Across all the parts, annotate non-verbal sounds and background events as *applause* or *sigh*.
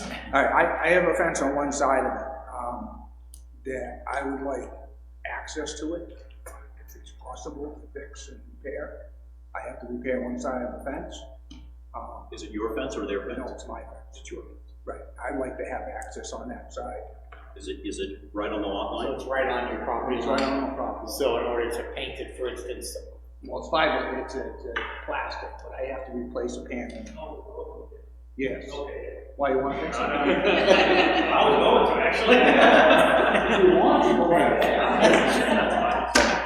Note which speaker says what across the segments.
Speaker 1: All right, I, I have a fence on one side of it, um, that I would like access to it, if it's possible to fix and repair. I have to repair one side of the fence, um,
Speaker 2: Is it your fence or their
Speaker 1: no,
Speaker 2: fence?
Speaker 1: it's my fence,
Speaker 2: It's your fence.
Speaker 1: right, I'd like to have access on that side.
Speaker 2: Is it, is it right on the lot
Speaker 3: So
Speaker 1: *laughs*
Speaker 2: line?
Speaker 3: it's right on your property
Speaker 1: It's right
Speaker 3: line.
Speaker 1: on the property.
Speaker 3: So in order to paint it, for instance,
Speaker 1: Well, it's fiber, it's, a- it's a plastic, but I have to replace a panel.
Speaker 4: Oh,
Speaker 1: Yes. Why, you want to fix
Speaker 4: *laughs*
Speaker 1: it?
Speaker 4: I was going to,
Speaker 1: *laughs*
Speaker 4: actually.
Speaker 1: You want to go right there.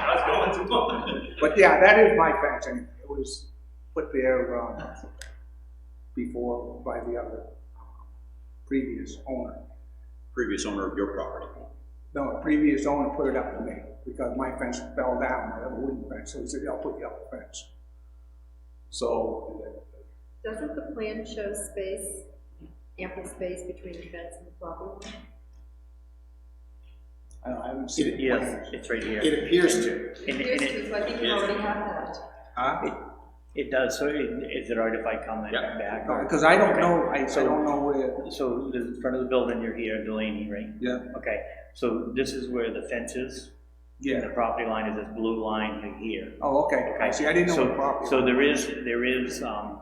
Speaker 4: I was going to.
Speaker 1: But yeah, that is my fence, and it was put there, um, before, by the other um, previous owner.
Speaker 2: Previous owner of your property.
Speaker 1: No, the previous owner put it up to me, because my fence fell down, I have a wooden fence, so he said, I'll put you up a fence. So,
Speaker 5: Doesn't the plan show space, ample space between the fence and the property? line?
Speaker 1: I don't- I haven't seen. the
Speaker 6: Yes,
Speaker 1: plans.
Speaker 6: it's right here.
Speaker 3: it appears to.
Speaker 5: It
Speaker 6: And-
Speaker 5: appears
Speaker 6: and
Speaker 5: to, so I think you already have that.
Speaker 1: Huh?
Speaker 6: It does, so it- is it all right if I come in
Speaker 2: Yeah.
Speaker 6: back?
Speaker 1: No, Because I don't know, I, I don't know where,
Speaker 6: So the front of the building, you're here, Delaney, right?
Speaker 1: yeah,
Speaker 6: Okay, so this is where the fence is, and
Speaker 1: yeah,
Speaker 6: the property line is this blue line right here.
Speaker 1: oh, okay, I see, I didn't know
Speaker 6: So-
Speaker 1: the property.
Speaker 6: So there is, there is, um,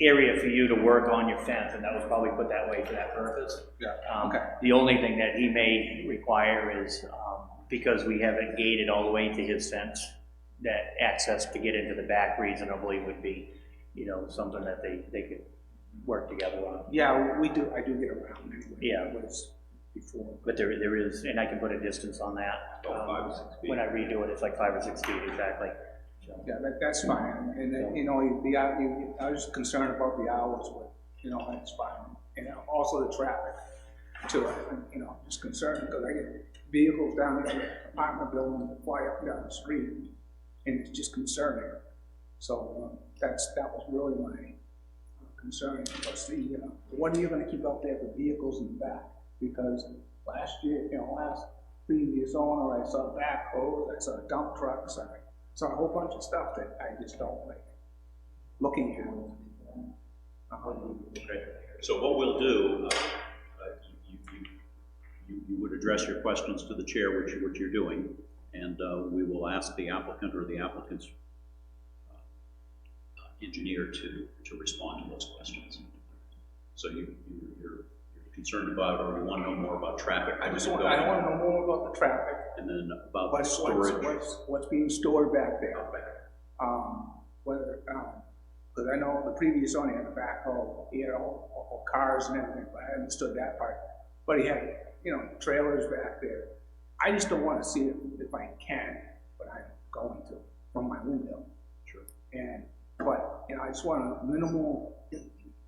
Speaker 6: area for you to work on your fence, and that was probably put that way for that purpose.
Speaker 1: Yeah,
Speaker 6: Um,
Speaker 1: okay.
Speaker 6: The only thing that he may require is, um, because we have it gated all the way to his fence, that access to get into the back reasonably would be, you know, something that they, they could work together on.
Speaker 1: Yeah, we do, I do get around anyway.
Speaker 6: Yeah.
Speaker 1: It was before.
Speaker 6: But there, there is, and I can put a distance on that.
Speaker 2: About Oh, five or six
Speaker 6: um,
Speaker 2: feet.
Speaker 6: When I redo it, it's like five or six feet, exactly. So,
Speaker 1: Yeah, that, that's fine, and then, you know, the, hou- you- I was concerned about the hours, but, you know, that's fine. And also the traffic too, I'm, you know, just concerned because I get vehicles down there, apartment buildings that fly up and down the street, and it's just concerning. So, um, that's, that was really my concern, was the, you know, what are you gonna keep out there for vehicles in the back? Because last year, you know, last previous owner, I saw backhoes, I saw dump trucks, I saw a whole bunch of stuff that I just don't like looking at. Um,
Speaker 2: Okay, so what we'll do, uh, uh, you, you- you, you would address your questions to the chair, which, which you're doing, and uh, we will ask the applicant or the applicant's uh, engineer to, to respond to those questions. So you, you- you're you're concerned about, or you want to know more about traffic?
Speaker 1: I just want, I wanna know more about the traffic,
Speaker 2: And then about the
Speaker 1: uh, what's, what's,
Speaker 2: storage.
Speaker 1: what's, what's being stored back there.
Speaker 2: out back.
Speaker 1: Um, whether, um, cause I know the previous owner had a backhoe, he had all, all cars and everything, but I understood that part. But he had, you know, trailers back there. I just don't wanna see it if I can, but I'm going to, from my window.
Speaker 2: Sure.
Speaker 1: And, but, you know, I just want a minimal,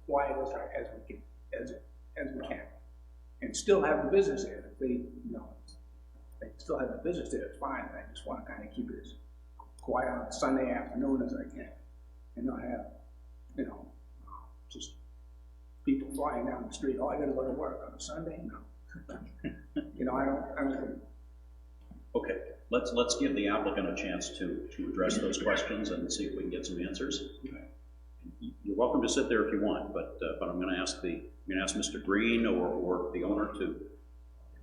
Speaker 1: quiet as, I- as we can, as, as we can. And still have the business there, if they, you know, they still have the business there, it's fine, I just wanna kinda keep it as quiet on Sunday afternoon as I can. And not have, you know, just people flying down the street, oh, I gotta go to work on a Sunday, no. *laughs* You know, I don't, I don't,
Speaker 2: Okay, let's, let's give the applicant a chance to, to address those questions and see if we can get some answers. You're welcome to sit there if you want, but, uh, but I'm gonna ask the, I'm gonna ask Mr. Green or, or the owner to,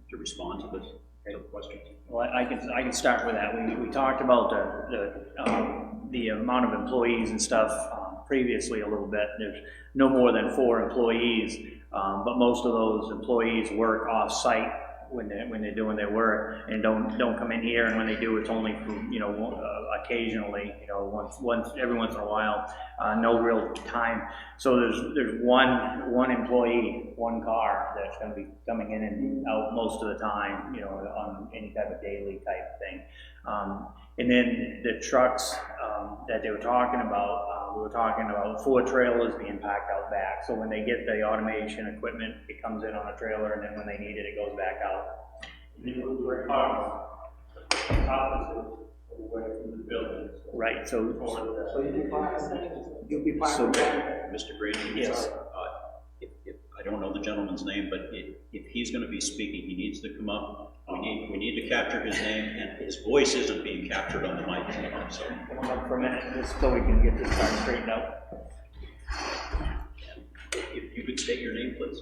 Speaker 2: to respond to this, to the question.
Speaker 6: Well, I I can, I can start with that. We, we talked about the, the, um, the amount of employees and stuff um, previously a little bit. There's no more than four employees, um, but most of those employees work off-site when they're, when they're doing their work and don't, don't come in here, and when they do, it's only, for, you know, one- uh, occasionally, you know, once, once, every once in a while, uh, no real time. So there's, there's one, one employee, one car that's gonna be coming in and out most of the time, you know, on any type of daily type thing. Um, and then the trucks, um, that they were talking about, uh, we were talking about four trailers being packed out back. So when they get the automation equipment, it comes in on a trailer, and then when they need it, it goes back out. Right, so,
Speaker 1: you'll be fine.
Speaker 6: So-
Speaker 1: with that.
Speaker 2: Mr. Green?
Speaker 6: Yes.
Speaker 2: uh, If, if, I don't know the gentleman's name, but if, if he's gonna be speaking, he needs to come up. We need, we need to capture his name, and his voice isn't being captured on the mic, so.
Speaker 6: hold on for a minute, just so we can get this part straightened out.
Speaker 2: If you could state your name, please.